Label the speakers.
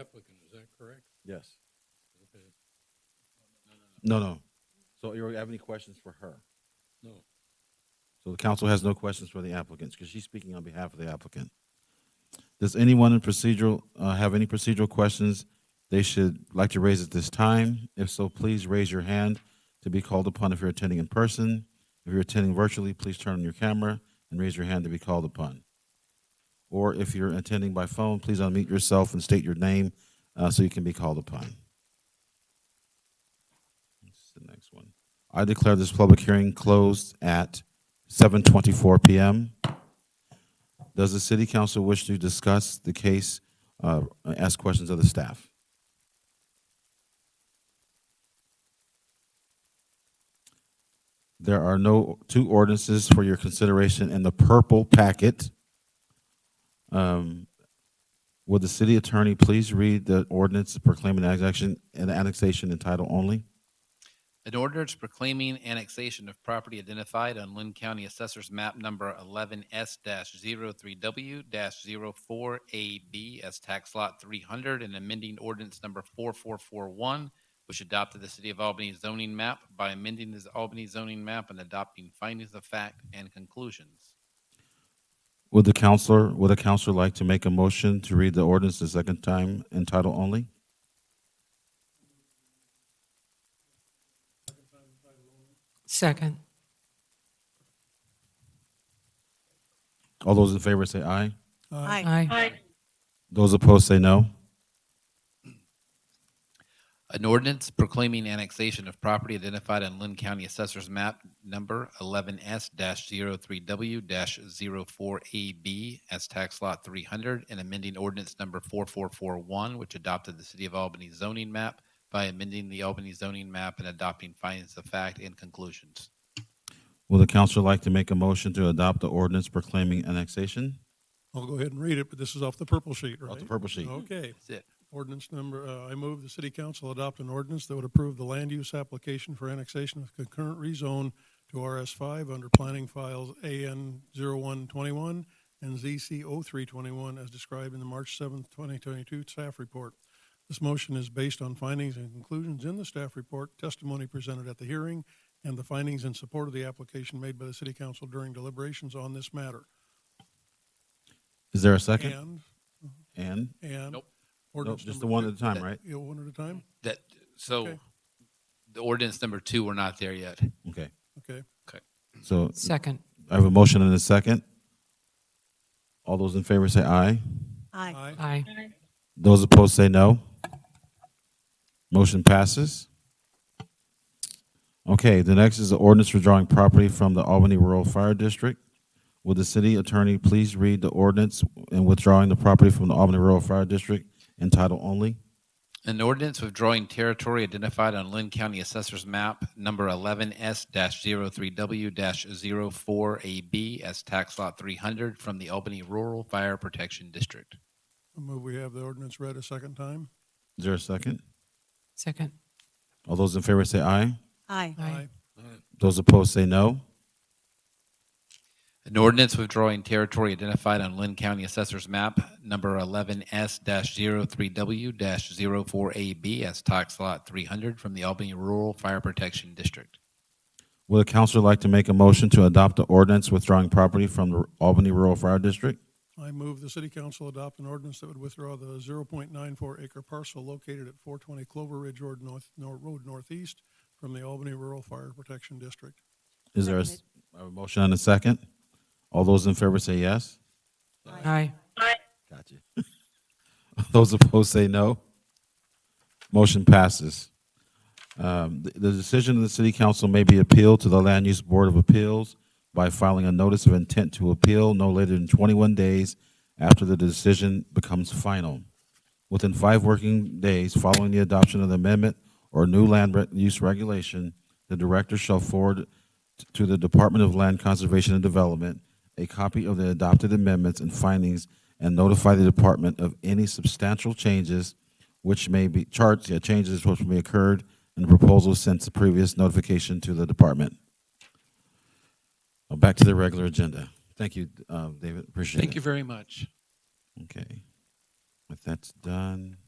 Speaker 1: applicant, is that correct?
Speaker 2: Yes.
Speaker 1: Okay. No, no,
Speaker 2: No, no. So you have any questions for her?
Speaker 1: no, no.
Speaker 2: So the council has no questions for the applicants because she's speaking on behalf of the applicant. Does anyone in procedural, uh, have any procedural questions they should like to raise at this time? If so, please raise your hand to be called upon if you're attending in person. If you're attending virtually, please turn on your camera and raise your hand to be called upon. Or if you're attending by phone, please unmute yourself and state your name, uh, so you can be called upon. That's the next one. I declare this public hearing closed at 7:24 PM. Does the city council wish to discuss the case, uh, ask questions of the staff? There are no, two ordinances for your consideration in the purple packet. Um, Would the city attorney please read the ordinance proclaiming annexation, an annexation in title only?
Speaker 3: An ordinance proclaiming annexation of property identified on Lynn County Assessor's Map Number 11S-03W-04AB as Tax Lot 300 and amending ordinance number 4441, which adopted the City of Albany zoning map by amending the Albany zoning map and adopting findings of fact and conclusions.
Speaker 2: Would the counselor, would a counselor like to make a motion to read the ordinance the second time in title only?
Speaker 4: Second.
Speaker 2: All those in favor say aye.
Speaker 4: Aye.
Speaker 2: Those opposed say no.
Speaker 3: An ordinance proclaiming annexation of property identified on Lynn County Assessor's Map Number 11S-03W-04AB as Tax Lot 300 and amending ordinance number 4441, which adopted the City of Albany zoning map by amending the Albany zoning map and adopting findings of fact and conclusions.
Speaker 2: Would the counselor like to make a motion to adopt the ordinance proclaiming annexation?
Speaker 5: I'll go ahead and read it, but this is off the purple sheet, right?
Speaker 2: Off the purple sheet.
Speaker 5: Okay.
Speaker 3: That's it.
Speaker 5: Ordinance number, uh, I move the city council adopt an ordinance that would approve the land use application for annexation of concurrent rezone to RS five under planning files AN 0121 and ZC 321 as described in the March seventh, twenty twenty-two staff report. This motion is based on findings and conclusions in the staff report, testimony presented at the hearing, and the findings in support of the application made by the city council during deliberations on this matter.
Speaker 2: Is there a second?
Speaker 5: And,
Speaker 2: And?
Speaker 5: and.
Speaker 3: Nope.
Speaker 2: Nope,
Speaker 5: ordinance
Speaker 2: just the
Speaker 5: number
Speaker 2: one at a time,
Speaker 3: that-
Speaker 2: right?
Speaker 5: Yeah, one at a time?
Speaker 3: That, so
Speaker 5: Okay.
Speaker 3: the ordinance number two, we're not there yet.
Speaker 2: Okay.
Speaker 5: Okay.
Speaker 2: So
Speaker 4: Second.
Speaker 2: I have a motion and a second. All those in favor say aye.
Speaker 6: Aye.
Speaker 4: Aye.
Speaker 2: Those opposed say no. Motion passes. Okay, the next is the ordinance withdrawing property from the Albany Rural Fire District. Would the city attorney please read the ordinance in withdrawing the property from the Albany Rural Fire District in title only?
Speaker 3: An ordinance withdrawing territory identified on Lynn County Assessor's Map Number 11S-03W-04AB as Tax Lot 300 from the Albany Rural Fire Protection District.
Speaker 5: I move we have the ordinance read a second time.
Speaker 2: Is there a second?
Speaker 4: Second.
Speaker 2: All those in favor say aye.
Speaker 6: Aye.
Speaker 4: Aye.
Speaker 2: Those opposed say no.
Speaker 3: An ordinance withdrawing territory identified on Lynn County Assessor's Map Number 11S-03W-04AB as Tax Lot 300 from the Albany Rural Fire Protection District.
Speaker 2: Would a counselor like to make a motion to adopt the ordinance withdrawing property from the Albany Rural Fire District?
Speaker 5: I move the city council adopt an ordinance that would withdraw the zero point nine four acre parcel located at four twenty Clover Ridge Road North, Nor- Road Northeast from the Albany Rural Fire Protection District.
Speaker 2: Is there a s- a motion and a second? All those in favor say yes.
Speaker 4: Aye.
Speaker 2: Gotcha. Those opposed say no. Motion passes. Um, The the decision of the city council may be appealed to the Land Use Board of Appeals by filing a notice of intent to appeal no later than 21 days after the decision becomes final. Within five working days following the adoption of the amendment or new land re- use regulation, the director shall forward t- to the Department of Land Conservation and Development a copy of the adopted amendments and findings and notify the department of any substantial changes which may be, charts, yeah, changes which may occurred in the proposal since the previous notification to the department. Uh, Back to the regular agenda. Thank you, uh, David, appreciate it.
Speaker 3: Thank you very much.
Speaker 2: Okay. If that's done,